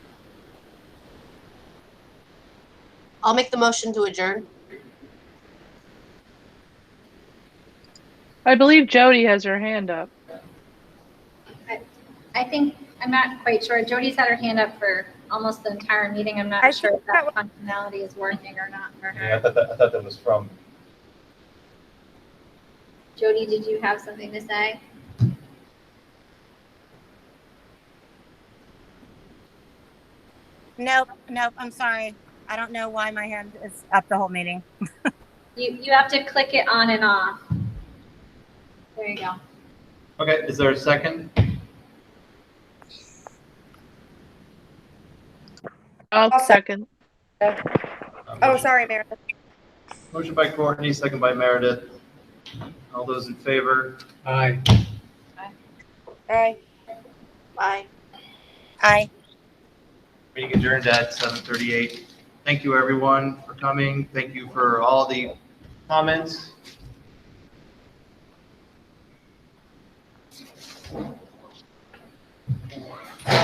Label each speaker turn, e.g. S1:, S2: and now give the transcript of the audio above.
S1: I'll make the motion to adjourn.
S2: I believe Jody has her hand up.
S3: I think, I'm not quite sure. Jody's had her hand up for almost the entire meeting. I'm
S4: I
S3: not
S4: think
S3: sure if
S4: that
S3: that functionality is working or not for
S5: Yeah,
S3: her.
S5: I thought that, I thought that was from,
S3: Jody, did you have something to say?
S4: Nope, nope, I'm sorry. I don't know why my hand is up the whole meeting.
S3: You, you have to click it on and off. There you go.
S5: okay, is there a second?
S2: I'll
S4: I'll
S2: second.
S5: Uh,
S4: Oh,
S5: motion-
S4: sorry, Meredith.
S5: Motion by Courtney, second by Meredith. All those in favor?
S6: Aye.
S4: Aye.
S1: Bye.
S4: Aye.
S5: Meeting adjourned at 7:38. Thank you, everyone, for coming. Thank you for all the comments.